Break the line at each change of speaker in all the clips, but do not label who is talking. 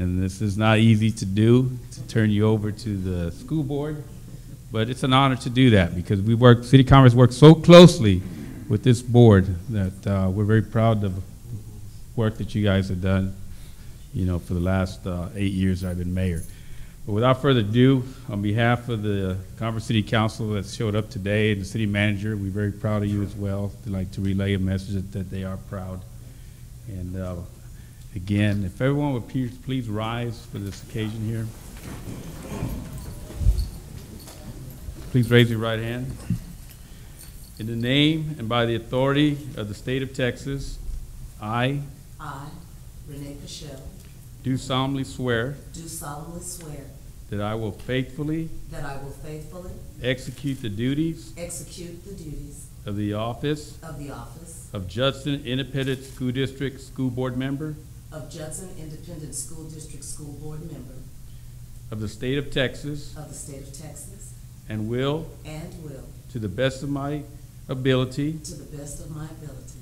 And this is not easy to do, to turn you over to the school board, but it's an honor to do that because we work, City Commerce works so closely with this board that uh, we're very proud of the work that you guys have done, you know, for the last uh, eight years I've been mayor. But without further ado, on behalf of the Conference City Council that showed up today and the city manager, we're very proud of you as well. They'd like to relay a message that- that they are proud. And uh, again, if everyone would please- please rise for this occasion here. Please raise your right hand. In the name and by the authority of the state of Texas, I
I, Renee Pichelle,
do solemnly swear
do solemnly swear
that I will faithfully
that I will faithfully
execute the duties
execute the duties
of the office
of the office
of Judson Independent School District School Board Member
of Judson Independent School District School Board Member
of the State of Texas
of the State of Texas
and will,
and will,
to the best of my ability,
to the best of my ability,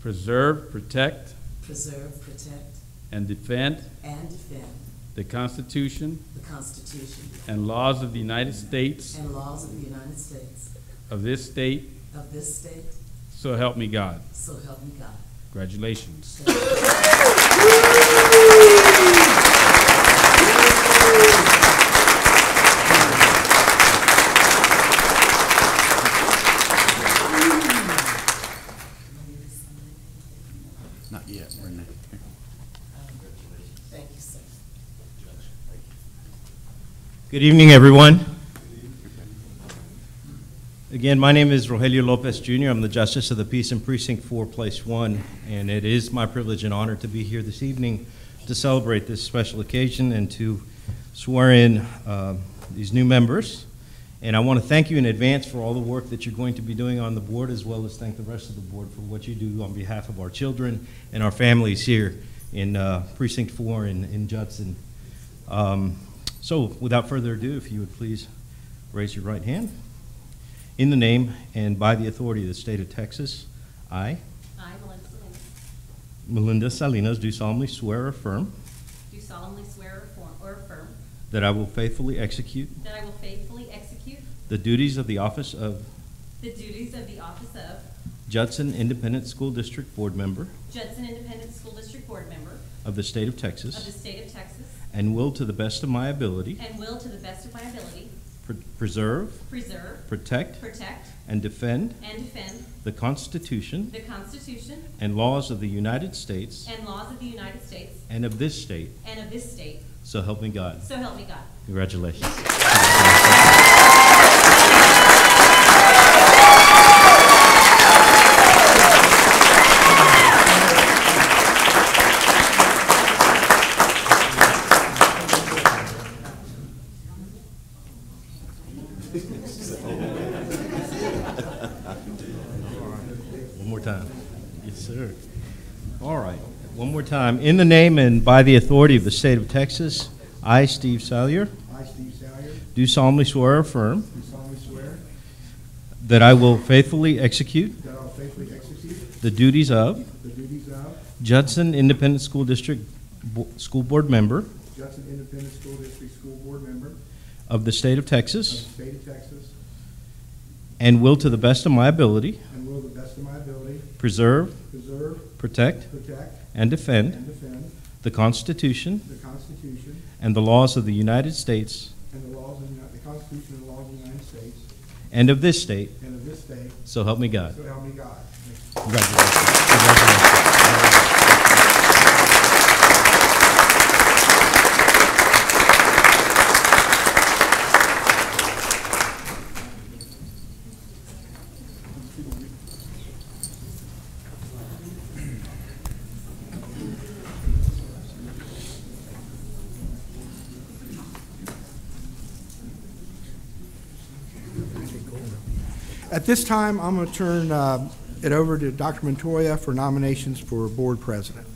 preserve, protect,
preserve, protect,
and defend
and defend
the Constitution
the Constitution
and laws of the United States,
and laws of the United States,
of this state,
of this state,
so help me God.
so help me God.
Congratulations.
Not yet, Renee.
Thank you, sir.
Good evening, everyone. Again, my name is Rogelio Lopez Jr. I'm the Justice of the Peace in Precinct 4, Place 1, and it is my privilege and honor to be here this evening to celebrate this special occasion and to swear in uh, these new members. And I want to thank you in advance for all the work that you're going to be doing on the board, as well as thank the rest of the board for what you do on behalf of our children and our families here in uh, Precinct 4 in in Judson. Um, So without further ado, if you would please raise your right hand. In the name and by the authority of the state of Texas, I,
I, Melinda Salinas,
Melinda Salinas, do solemnly swear or affirm
do solemnly swear or form- or affirm
that I will faithfully execute
that I will faithfully execute
the duties of the office of
the duties of the office of
Judson Independent School District Board Member
Judson Independent School District Board Member
of the state of
of the
Texas
State of Texas
and will, to the best of my ability,
and will, to the best of my ability,
pr- preserve,
preserve,
protect,
protect,
and defend
and defend
the Constitution
the Constitution
and laws of the United States
and laws of the United States
and of this state,
and of this state,
so help me God.
so help me God.
Congratulations. One more time. Yes, sir. All right, one more time. In the name and by the authority of the state of Texas, I, Steve Salyer,
I, Steve Salyer,
do solemnly swear or affirm
do solemnly swear
that I will faithfully execute
that I will faithfully execute
the duties of
the duties of
Judson Independent School District Bo- School Board Member
Judson Independent School District School Board Member of
of the state of
the
Texas
State of Texas
and will, to the best of my ability,
and will, to the best of my ability,
preserve,
preserve,
protect,
protect,
and defend
and defend
the Constitution
the Constitution
and the laws of the United States
and the laws of the Uni- the Constitution and laws of the United States
and of this state,
and of this state,
so help me God.
so help me God. Thank you.
Congratulations. Congratulations.
At this time, I'm going to turn uh, it over to Dr. Montoya for nominations for Board President.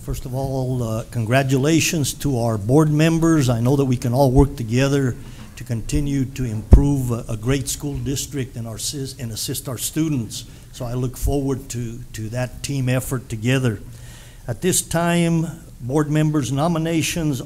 First of all, uh, congratulations to our board members. I know that we can all work together to continue to improve a a great school district and our, sis- and assist our students. So I look forward to, to that team effort together. At this time, Board members' nominations